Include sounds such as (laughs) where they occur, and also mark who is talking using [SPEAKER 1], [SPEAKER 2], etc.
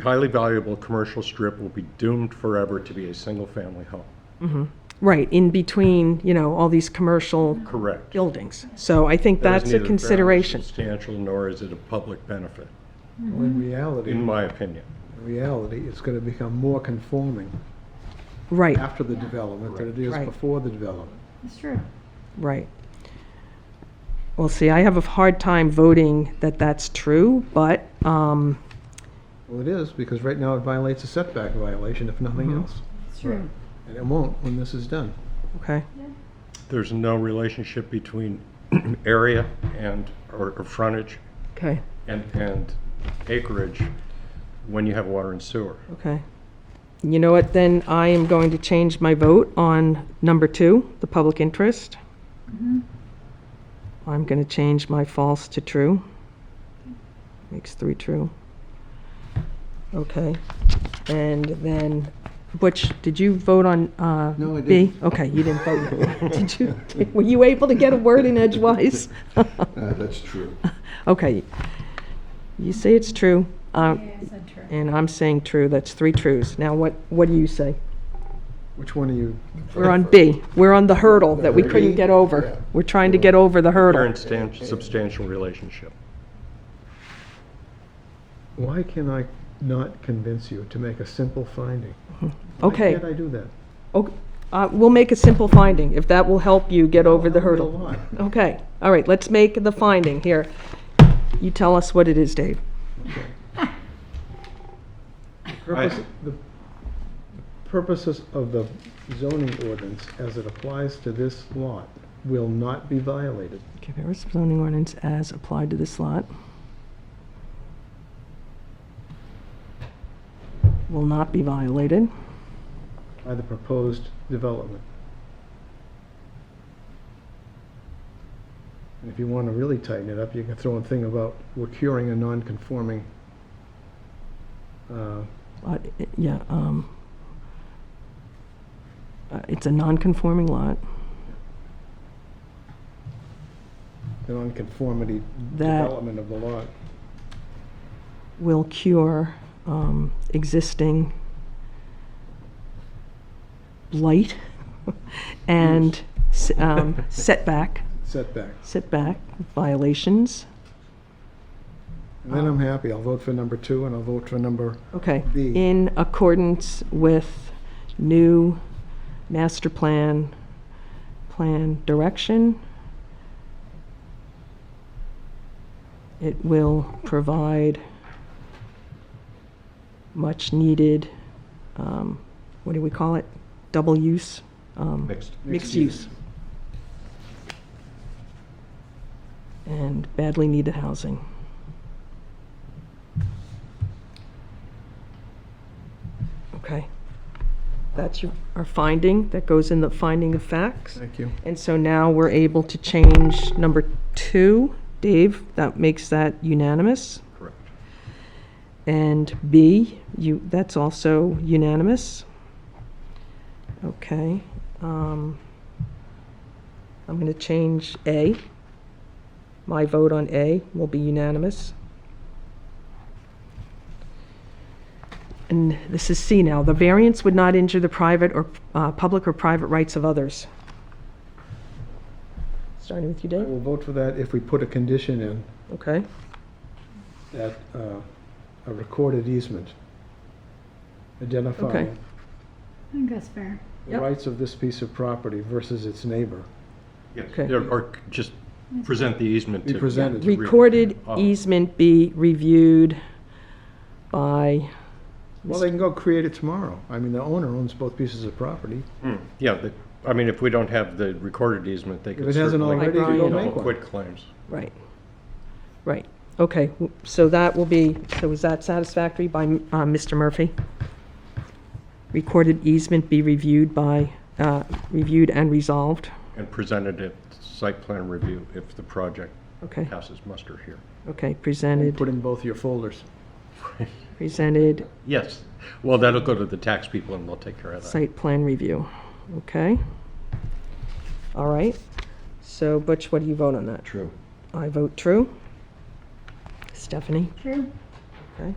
[SPEAKER 1] highly valuable commercial strip will be doomed forever to be a single-family home.
[SPEAKER 2] Right, in between, you know, all these commercial
[SPEAKER 1] Correct.
[SPEAKER 2] buildings. So I think
[SPEAKER 1] That is
[SPEAKER 2] that's
[SPEAKER 1] neither
[SPEAKER 2] a
[SPEAKER 1] fairly
[SPEAKER 2] consideration.
[SPEAKER 1] Substantial, nor is it a public benefit,
[SPEAKER 3] Well, in reality,
[SPEAKER 1] in
[SPEAKER 3] in
[SPEAKER 1] my opinion.
[SPEAKER 3] reality, it's going to become more conforming
[SPEAKER 2] Right,
[SPEAKER 3] after the development than it is
[SPEAKER 2] Right.
[SPEAKER 3] before the development.
[SPEAKER 4] It's true.
[SPEAKER 2] right. Well, see, I have a hard time voting that that's true, but, um,
[SPEAKER 3] Well, it is, because right now it violates a setback violation, if nothing
[SPEAKER 2] Mm-hmm.
[SPEAKER 3] else.
[SPEAKER 4] It's true.
[SPEAKER 3] And it won't when this is done.
[SPEAKER 2] okay,
[SPEAKER 1] There's no relationship between (clears throat) area and, or or frontage
[SPEAKER 2] okay,
[SPEAKER 1] and, and acreage when you have water and sewer.
[SPEAKER 2] okay. You know what, then I am going to change my vote on number two, the public interest. I'm going to change my false to true. Makes three true. Okay. And then, Butch, did you vote on uh, B?
[SPEAKER 3] No, I didn't.
[SPEAKER 2] Okay, you didn't vote. (laughs) Did you, were you able to get a word in
[SPEAKER 3] (laughs)
[SPEAKER 2] edgewise?
[SPEAKER 5] Uh, That's true.
[SPEAKER 2] Okay. You say it's true, uh,
[SPEAKER 4] Yeah, I said true.
[SPEAKER 2] and I'm saying true. That's three trues. Now, what, what do you say?
[SPEAKER 3] Which one are you?
[SPEAKER 2] We're on B. We're on the hurdle that we couldn't
[SPEAKER 5] B,
[SPEAKER 2] get over.
[SPEAKER 5] yeah.
[SPEAKER 2] We're trying to get over the hurdle.
[SPEAKER 1] Parent stan- substantial relationship.
[SPEAKER 3] Why can I not convince you to make a simple finding?
[SPEAKER 2] Okay.
[SPEAKER 3] Why can't I do that?
[SPEAKER 2] Okay, uh, We'll make a simple finding, if that will help you get over the
[SPEAKER 3] Help me a
[SPEAKER 2] hurdle.
[SPEAKER 3] lot.
[SPEAKER 2] Okay, all right, let's make the finding here. You tell us what it is, Dave.
[SPEAKER 3] Purpose- The purposes of the zoning ordinance as it applies to this lot will not be violated.
[SPEAKER 2] Okay, there is zoning ordinance as applied to this lot. Will not be violated.
[SPEAKER 3] by the proposed development. And if you want to really tighten it up, you can throw in thing about we're curing a non-conforming, uh,
[SPEAKER 2] Lot, i- yeah, um, uh, it's a non-conforming lot.
[SPEAKER 3] the non-conformity
[SPEAKER 2] That-
[SPEAKER 3] development of the lot.
[SPEAKER 2] will cure um, existing blight (laughs) and s- um, setback,
[SPEAKER 3] Setback.
[SPEAKER 2] setback violations.
[SPEAKER 3] And then I'm happy. I'll vote for number two and I'll vote for number,
[SPEAKER 2] Okay.
[SPEAKER 3] B.
[SPEAKER 2] In accordance with new master plan, plan direction, it will provide much-needed, um, what do we call it? Double use? um,
[SPEAKER 1] Mixed.
[SPEAKER 2] Mixed use. And badly needed housing. Okay. That's your, our finding, that goes in the finding of facts.
[SPEAKER 3] thank you.
[SPEAKER 2] And so now we're able to change number two. Dave, that makes that unanimous.
[SPEAKER 1] Correct.
[SPEAKER 2] And B, you, that's also unanimous. Okay. um, I'm going to change A. My vote on A will be unanimous. And this is C now. The variance would not injure the private or, uh, public or private rights of others. Starting with you,
[SPEAKER 3] I
[SPEAKER 2] Dave?
[SPEAKER 3] will vote for that if we put a condition in
[SPEAKER 2] Okay.
[SPEAKER 3] that, uh, a recorded easement identifying
[SPEAKER 4] I think that's fair.
[SPEAKER 3] the
[SPEAKER 2] Yep.
[SPEAKER 3] rights of this piece of property versus its neighbor.
[SPEAKER 1] Yes,
[SPEAKER 2] Okay.
[SPEAKER 1] or or just present the easement
[SPEAKER 3] Be
[SPEAKER 1] to.
[SPEAKER 3] presented.
[SPEAKER 1] to read.
[SPEAKER 2] Recorded
[SPEAKER 1] Oh.
[SPEAKER 2] easement be reviewed by,
[SPEAKER 3] Well, they can go create it tomorrow. I mean, the owner owns both pieces of property.
[SPEAKER 1] Hmm, Yeah, the- I mean, if we don't have the recorded easement, they could
[SPEAKER 3] it
[SPEAKER 1] certainly.
[SPEAKER 3] hasn't
[SPEAKER 2] already, Like go
[SPEAKER 3] Brian. make one.
[SPEAKER 1] Quit claims.
[SPEAKER 2] right, right. Okay, w- so that will be, so is that satisfactory by uh, Mr. Murphy? Recorded easement be reviewed by, uh, reviewed and resolved?
[SPEAKER 1] and presented at site plan review if the project
[SPEAKER 2] Okay,
[SPEAKER 1] passes muster here.
[SPEAKER 2] okay,
[SPEAKER 3] And
[SPEAKER 2] presented,
[SPEAKER 3] put in both your folders.
[SPEAKER 2] presented,
[SPEAKER 1] Yes, well, that'll go to the tax people and they'll take care of that.
[SPEAKER 2] site plan review. Okay? All right. So Butch, what do you vote on that?
[SPEAKER 5] True.
[SPEAKER 2] I vote true. Stephanie?
[SPEAKER 4] True.
[SPEAKER 2] Okay.